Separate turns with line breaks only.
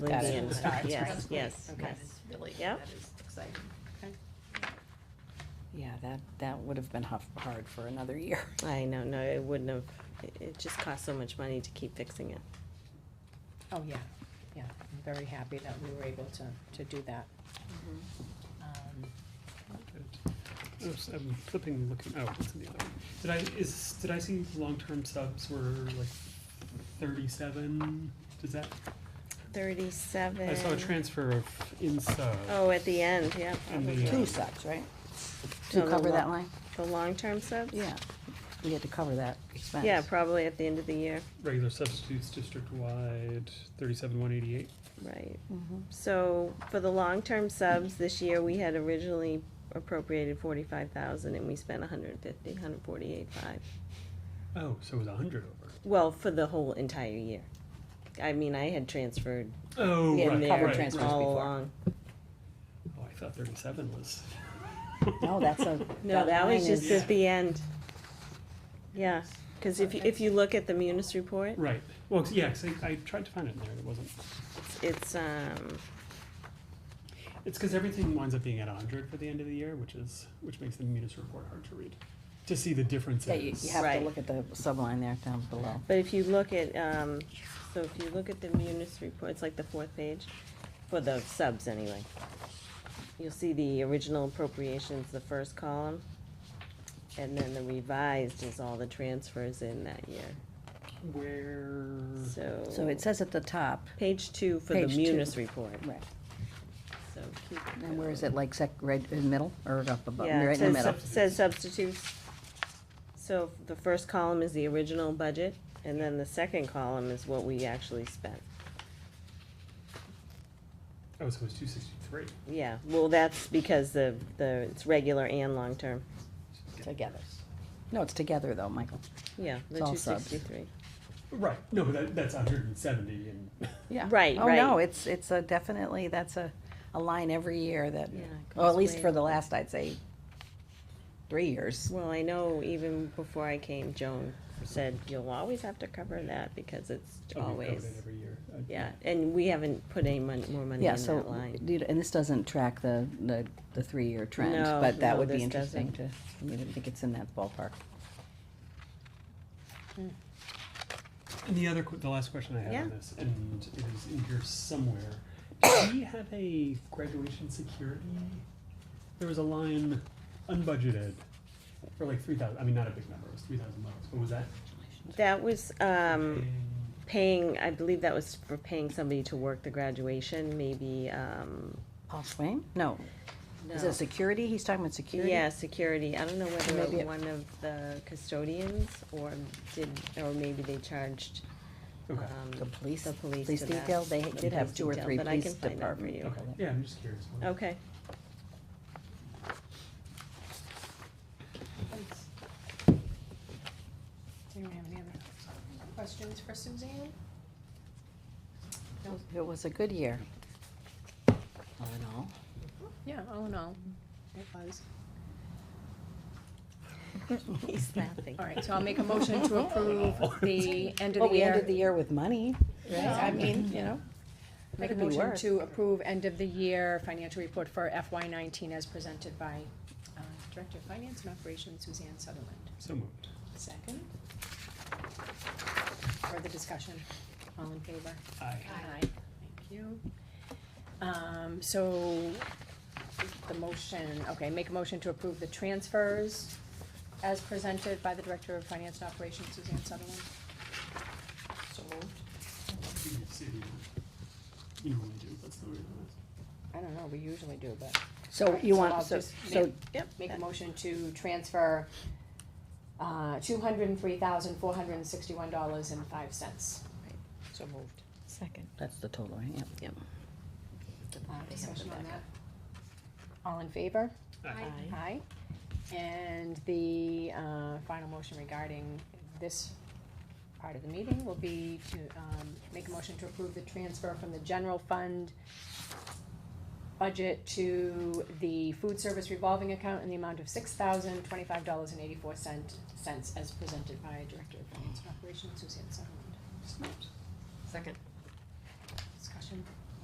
Got it.
Lindsay and-
Yes,
Yes, yes,
Okay.
yes.
yes.
Really,
Yep.
that is exciting.
Yeah, that, that would have been huff- hard for another year.
I know, no, it wouldn't have, it- it just costs so much money to keep fixing it.
Oh, yeah, yeah, I'm very happy that we were able to, to do that. Um,
Oops, I'm flipping, looking, oh, it's in the other one. Did I, is, did I see long-term subs were like thirty-seven? Does that,
Thirty-seven.
I saw a transfer of in sub.
Oh, at the end, yeah.
And the,
probably.
Um,
uh,
Two subs, right?
No,
To
the
cover that
lo-
line?
The long-term subs?
Yeah. We had to cover that expense.
Yeah, probably at the end of the year,
Regular substitutes district-wide, thirty-seven, one eighty-eight.
right.
Mhm.
So for the long-term subs, this year, we had originally appropriated forty-five thousand and we spent a hundred and fifty, hundred forty-eight five.
Oh, so it was a hundred over.
Well, for the whole entire year. I mean, I had transferred
Oh,
in
right,
there
right, right.
transfers
all
before.
along.
Oh, I thought thirty-seven was.
No, that's a.
No, that was
line
just
is-
at the end. Yeah, cause if, you- if you look at the munis report,
Right, well, 'cause- yeah, 'cause I, I tried to find it in there, and it wasn't.
it's, um,
It's because everything winds up being at hundred for the end of the year, which is, which makes the munis report hard to read, to see the differences.
Yeah, you, you have
Right.
to look at the subline there down below.
but if you look at, um, so if you look at the munis report, it's like the fourth page, for the subs anyway. You'll see the original appropriations, the first column, and then the revised is all the transfers in that year,
Where?
so.
So it says at the top,
Page two for the
Page two.
munis report,
right,
so keep.
and where is
going.
it, like sec, right in the middle, or up above,
Yeah, it
right in the
says,
middle?
sub- says substitutes. So the first column is the original budget, and then the second column is what we actually spent.
Oh, so it was two sixty-three.
Yeah, well, that's because the, the, it's regular and long-term,
Together. No, it's together though, Michael.
yeah, the
It's all
two
subs.
sixty-three.
Right, no, but that, that's hundred and seventy and.
Yeah.
Right,
Oh, no,
right.
it's, it's a definitely, that's a, a line every year that,
Yeah, it
well,
goes
at least
way
for the
up.
last, I'd say, three years.
Well, I know even before I came, Joan said, you'll always have to cover that because it's
Oh, we covered
always,
it Every year. Uh, I-
yeah, and we haven't put any mon- more money
Yeah,
in that
so,
line.
you know, and this doesn't track the, the, the three-year trend,
No,
but that
no,
would be
this
interesting to, I mean, I think it's in that ballpark.
And the other, que- the last question I have on
Yeah.
this, and it is in here somewhere, do we have a graduation security? There was a line unbudgeted for like three thousand, I mean, not a big number, it was three thousand dollars, but was that?
That was, um,
paying-
paying, I believe that was for paying somebody to work the graduation, maybe, um,
Paul Swain? No. Is it security? He's talking about security?
Yeah, security, I don't know
Maybe
whether
it-
one of the custodians or did, or maybe they charged, um,
Okay,
The police,
the police
police
to that.
detail, they
The
did have
police
two or
detail,
three
but I
police
can find out for
department.
you.
okay, yeah, I'm just curious. what-
Okay,
Does anyone have any other questions for Suzanne?
It was a good year. All in all.
Yeah, oh, no, it was.
he's laughing.
All right, so I'll make a motion to approve the end
Well,
of the
we
year.
Oh, ended the year with money, right?
Yeah, I mean,
you know.
Make a
Could be
motion
worse.
to approve end of the year financial report for FY nineteen as presented by uh, Director of Finance and Operations Suzanne Sutherland.
So moved.
Second. Further discussion, all in favor?
Aye.
Aye. Thank you. Um, so, the motion, okay, make a motion to approve the transfers as presented by the Director of Finance and Operations Suzanne Sutherland. So moved.
You can see the- You normally do, that's the way it was.
I don't know, we usually do, but.
So you want,
I'll
so,
just
so
make- Make a motion to transfer, uh, two hundred and three thousand, four hundred and sixty-one dollars and five cents. So moved.
Second.
That's the total, right? Yep.
Yep.
Uh, discussion on that? All in favor?
Aye.
Aye. And the uh, final motion regarding this part of the meeting will be to um, make a motion to approve the transfer from the general fund budget to the food service revolving account in the amount of six thousand twenty-five dollars and eighty-four cent, cents as presented by Director of Finance and Operations Suzanne Sutherland.
So moved.
Second.
Discussion,